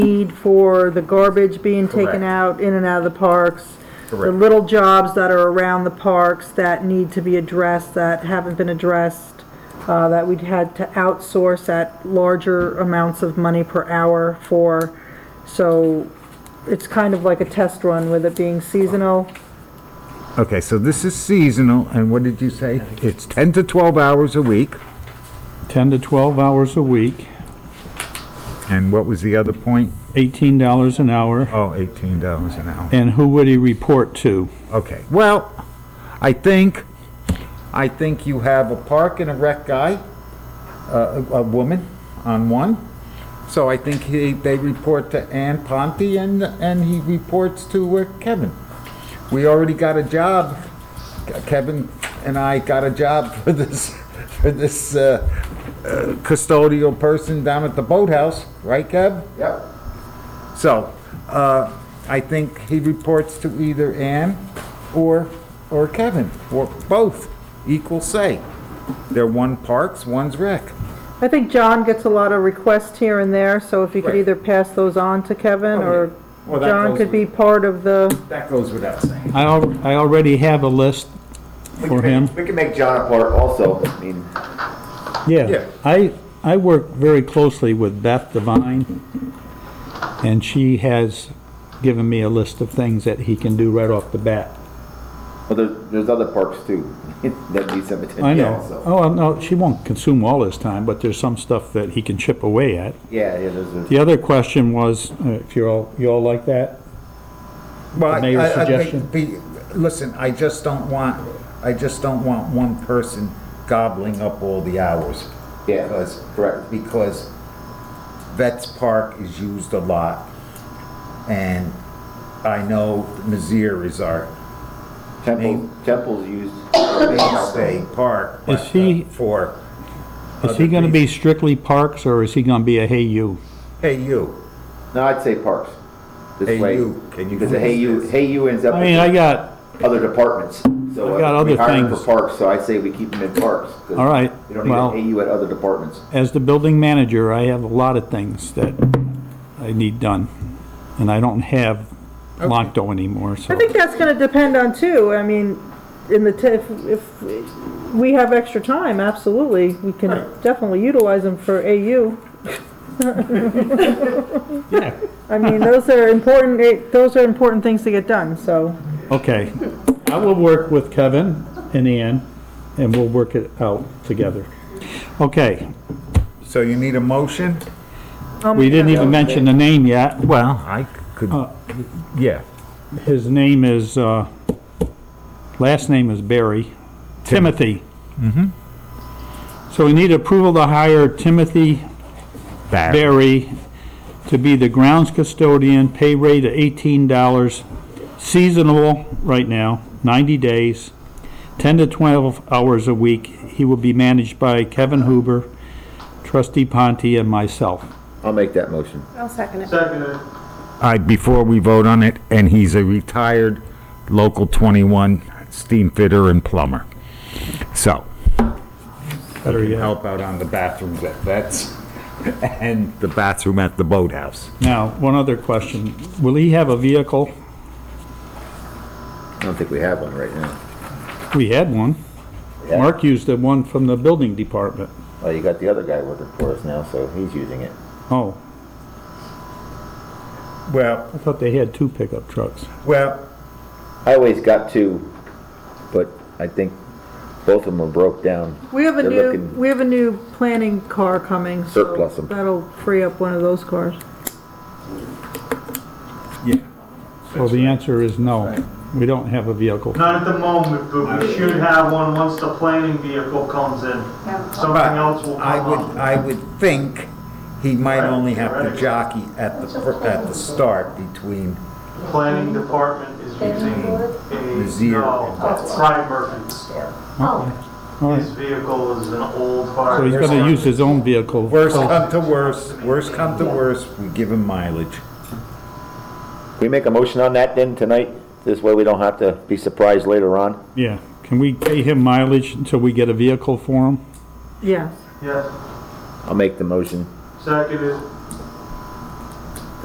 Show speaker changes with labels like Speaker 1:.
Speaker 1: need for the garbage being
Speaker 2: Correct.
Speaker 1: taken out in and out of the parks. The
Speaker 2: Correct.
Speaker 1: little jobs that are around the parks that need to be addressed, that haven't been addressed, uh, that we'd had to outsource at larger amounts of money per hour for. So it's kind of like a test run with it being seasonal.
Speaker 3: Okay, so this is seasonal, and what did you say? It's 10 to 12 hours a week,
Speaker 4: 10 to 12 hours a week,
Speaker 3: and what was the other point?
Speaker 4: $18 an hour,
Speaker 3: Oh, $18 an hour.
Speaker 4: and who would he report to?
Speaker 3: Okay, well, I think, I think you have a park and a rec guy, uh, a a woman on one. So I think he, they report to Ann Ponte and, and he reports to uh, Kevin. We already got a job, Kevin and I got a job for this, for this uh, uh, custodial person down at the boathouse, right, Kev?
Speaker 2: Yep.
Speaker 3: So, uh, I think he reports to either Ann or, or Kevin, or both, equal say. They're one parks, one's rec.
Speaker 1: I think John gets a lot of requests here and there, so if you could
Speaker 3: Right.
Speaker 1: either pass those on to Kevin,
Speaker 3: Oh,
Speaker 1: or
Speaker 3: yeah. Well, that
Speaker 1: John
Speaker 3: goes
Speaker 1: could be
Speaker 3: with-
Speaker 1: part of the,
Speaker 3: That goes without saying.
Speaker 4: I al- I already have a list
Speaker 2: We
Speaker 4: for
Speaker 2: can make-
Speaker 4: him.
Speaker 2: We can make John a part also, I mean,
Speaker 3: Yeah.
Speaker 4: Yeah, I, I work very closely with Beth Devine, and she has given me a list of things that he can do right off the bat.
Speaker 2: but there's, there's other parks too that need some
Speaker 4: I
Speaker 2: attention
Speaker 4: know,
Speaker 2: also.
Speaker 4: oh, no, she won't consume all his time, but there's some stuff that he can chip away at.
Speaker 2: Yeah, yeah, there's a.
Speaker 4: The other question was, uh, if you're all, you all like that?
Speaker 3: Well, I-
Speaker 4: The mayor's
Speaker 3: I- I think
Speaker 4: suggestion?
Speaker 3: be- Listen, I just don't want, I just don't want one person gobbling up all the hours.
Speaker 2: Yeah,
Speaker 3: Because-
Speaker 2: correct.
Speaker 3: Because Vets Park is used a lot, and I know Mizzier is our
Speaker 2: Temple,
Speaker 3: Name.
Speaker 2: temples used.
Speaker 3: mainstay park. but,
Speaker 4: Is he-
Speaker 3: uh, For,
Speaker 4: Is he gonna be strictly parks, or is he gonna be a hey you?
Speaker 3: hey, you,
Speaker 2: No, I'd say parks.
Speaker 3: Hey,
Speaker 2: This way.
Speaker 3: you, can you
Speaker 2: Because the
Speaker 3: please
Speaker 2: hey you,
Speaker 3: this?
Speaker 2: hey you ends up
Speaker 4: I mean, I
Speaker 2: with
Speaker 4: got,
Speaker 2: other departments. So
Speaker 4: I've got
Speaker 2: uh, we
Speaker 4: other
Speaker 2: hired
Speaker 4: things.
Speaker 2: For parks, so I say we keep them in parks. 'cause
Speaker 4: All right,
Speaker 2: You don't need a
Speaker 4: well-
Speaker 2: hey you at other departments.
Speaker 4: as the building manager, I have a lot of things that I need done, and I don't have Lonto anymore, so.
Speaker 1: I think that's gonna depend on too, I mean, in the, t- if, if we have extra time, absolutely, we can definitely utilize them for AU.
Speaker 4: Yeah.
Speaker 1: I mean, those are important, eh, those are important things to get done, so.
Speaker 4: Okay, I will work with Kevin and Ann, and we'll work it out together. Okay,
Speaker 3: so you need a motion?
Speaker 1: I'll
Speaker 4: we
Speaker 1: make
Speaker 4: didn't
Speaker 1: that-
Speaker 4: even mention the name yet.
Speaker 3: Well, I could,
Speaker 4: Uh,
Speaker 3: yeah.
Speaker 4: His name is, uh, last name is Barry, Timothy. So we need approval to hire Timothy Barry to be the grounds custodian, pay rate of eighteen dollars, seasonal right now, ninety days, ten to twelve hours a week. He will be managed by Kevin Huber, trustee Ponte, and myself.
Speaker 2: I'll make that motion.
Speaker 5: I'll second it.
Speaker 6: Seconded.
Speaker 3: I, before we vote on it, and he's a retired local 21 steam fitter and plumber. So,
Speaker 4: Better yet.
Speaker 3: help out on the bathrooms at Vets and the bathroom at the boathouse.
Speaker 4: Now, one other question. Will he have a vehicle?
Speaker 2: I don't think we have one right now.
Speaker 4: We had one. Mark used the one from the building department.
Speaker 2: Well, you got the other guy working for us now, so he's using it.
Speaker 4: Oh,
Speaker 3: Well,
Speaker 4: I thought they had two pickup trucks.
Speaker 3: well,
Speaker 2: I always got two, but I think both of them are broke down.
Speaker 1: We have a
Speaker 2: They're
Speaker 1: new,
Speaker 2: looking-
Speaker 1: we have a new planning car coming, so.
Speaker 2: Surplus 'em.
Speaker 1: That'll free up one of those cars.
Speaker 3: yeah.
Speaker 4: So the answer is no. We don't have a vehicle.
Speaker 6: Not at the moment, but we should have one once the planning vehicle comes in. Something else will
Speaker 3: But I would,
Speaker 6: come up.
Speaker 3: I would think he might only have to jockey at the, fir- at the start between,
Speaker 6: Planning department is using a,
Speaker 3: Zero.
Speaker 6: no, Brian Murphy's.
Speaker 4: All
Speaker 6: His
Speaker 4: right.
Speaker 6: vehicle is an old
Speaker 4: So he's
Speaker 6: fire.
Speaker 4: gonna use his own vehicle.
Speaker 3: worst come to worst, worst come to worst, we give him mileage.
Speaker 2: Can we make a motion on that then tonight? This way we don't have to be surprised later on?
Speaker 4: Yeah. Can we pay him mileage until we get a vehicle for him?
Speaker 1: Yes.
Speaker 6: Yes,
Speaker 2: I'll make the motion.
Speaker 6: seconded.